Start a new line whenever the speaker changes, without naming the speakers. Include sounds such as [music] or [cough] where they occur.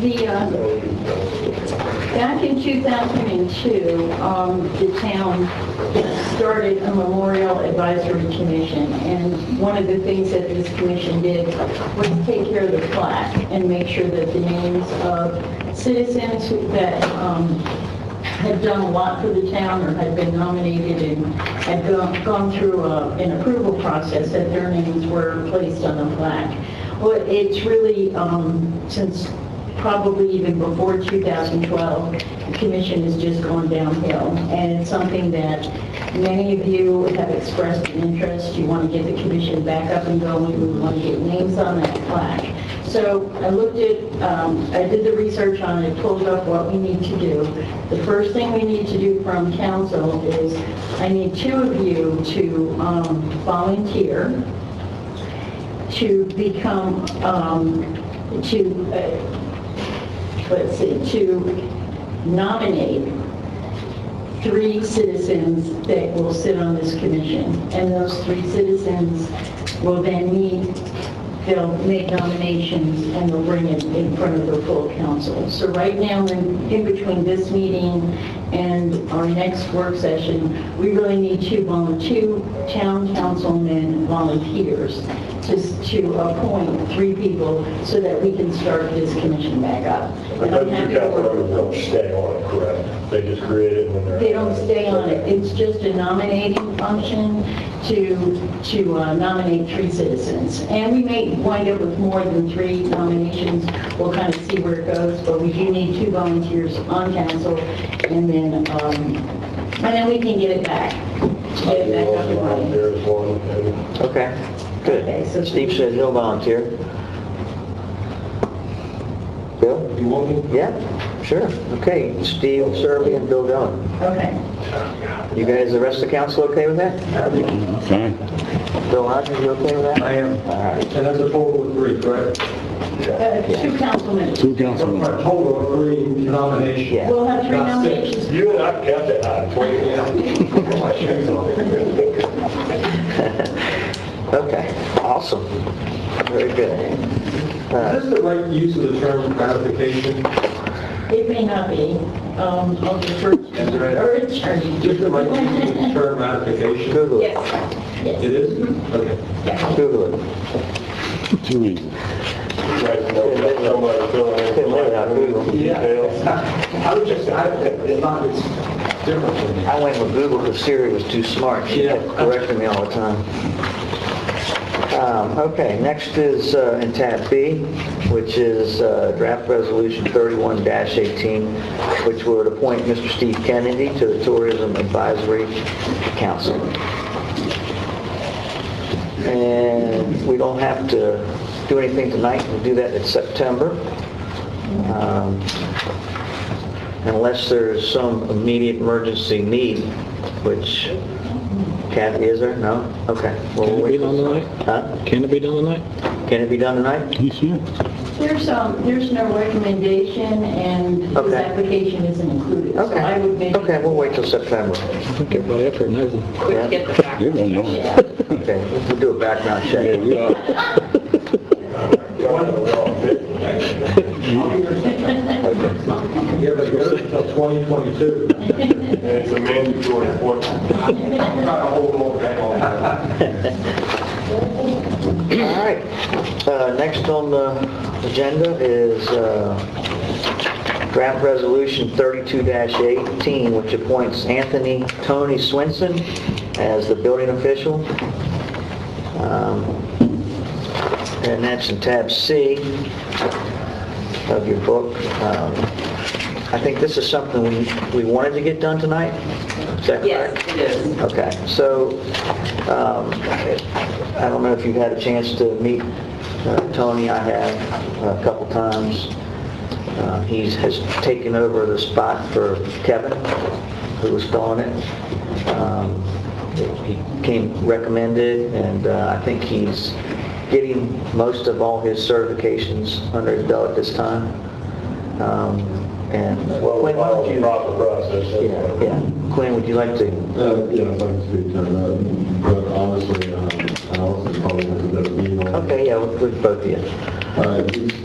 The, uh, back in 2002, um, the town started a memorial advisory commission, and one of the things that this commission did was take care of the plaque and make sure that the names of citizens who- that um, had done a lot for the town or had been nominated and had gone- gone through a- an approval process, that their names were placed on the plaque. Well, it's really, um, since probably even before 2012, the commission has just gone downhill. And it's something that many of you have expressed an interest. You want to get the commission back up and going. We want to get names on that plaque. So I looked at, um, I did the research on it, pulled up what we need to do. The first thing we need to do from council is, I need two of you to um, volunteer to become, um, to, uh, let's see, to nominate three citizens that will sit on this commission. And those three citizens will then meet, they'll make nominations, and they'll bring it in front of the full council. So right now, in in between this meeting and our next work session, we really need two volun- two town councilmen volunteers to to appoint three people so that we can start this commission back up.
But
And I'm
those
happy
two
to
council
work-
members don't stay on it, correct? They just create it when they're...
they don't stay on it. It's just a nominating function to, to uh, nominate three citizens. And we may wind up with more than three nominations. We'll kind of see where it goes, but we do need two volunteers on council. And then, um, and then we can get it back, to get it back up and running.
There's one, and
Okay,
Okay, so-
good. Steve says he'll volunteer. Bill?
you want me?
Yeah, sure. Okay, Steve, Serby, and Bill Dillon.
Okay.
You guys, the rest of the council okay with that?
Okay.
Bill Hodges, you okay with that?
I am.
All right.
And that's a total of three, correct?
Uh, Two councilmen.
Two
A
councilmen.
total of three nominations.
Yeah.
We'll have three
Not six.
nominations.
You and I kept it high, 20 My shoes on.
Okay, awesome. Very good.
Is this the right use of the term ratification?
It may not be, um, I'll defer
That's all right.
to our attorney.
Is this the right use of the term ratification?
Google it,
[laughs] Yes, yes.
It is? Okay.
Google it.
Too easy.
Right, no, that's somebody filling in.
It might not be.
Details.
[laughs] I was just, I, it's not, it's different for me.
I went with Google because Siri was too smart. She kept
Yeah.
correcting me all the time. Um, Okay, next is uh, in tab B, which is uh, draft resolution 31-18, which would appoint Mr. Steve Kennedy to the Tourism Advisory Council. And we don't have to do anything tonight. We'll do that in September. Um, unless there's some immediate emergency need, which Kathy, is there? No? Okay. Well,
Can it
we'll
be
wait.
done tonight?
Huh?
Can it be done tonight?
Can it be done tonight?
He's here.
There's, um, there's no recommendation, and his
Okay.
application isn't included. So
Okay.
I would make,
Okay, we'll wait till September.
I think everybody up here knows it.
Yeah.
Everybody knows.
yeah,
Okay, we'll do a background
Yeah,
check.
we are.
Yeah, but it goes until 2022.
And it's a mandatory appointment.
I'm trying to hold on back on that.
All right. Uh, Next on the agenda is uh, draft resolution 32-18, which appoints Anthony Tony Swenson as the building official. Um, And that's in tab C of your book. Um, I think this is something we we wanted to get done tonight. Is that correct?
Yes, it is.
Okay, so, um, I don't know if you've had a chance to meet uh, Tony, I have a couple times. Uh, He has taken over the spot for Kevin, who was filling it. Um, He came recommended, and uh, I think he's getting most of all his certifications under his belt at this time. Um, And
Well, we
Quinn, why
follow
don't
the
you,
proper process. that's
yeah,
what-
yeah, Quinn, would you like to
Uh, Yeah, I'd like to speak to that, but uh, honestly, um, Allison probably has a better view on it.
é Okay, yeah, with both of you.
Uh, He's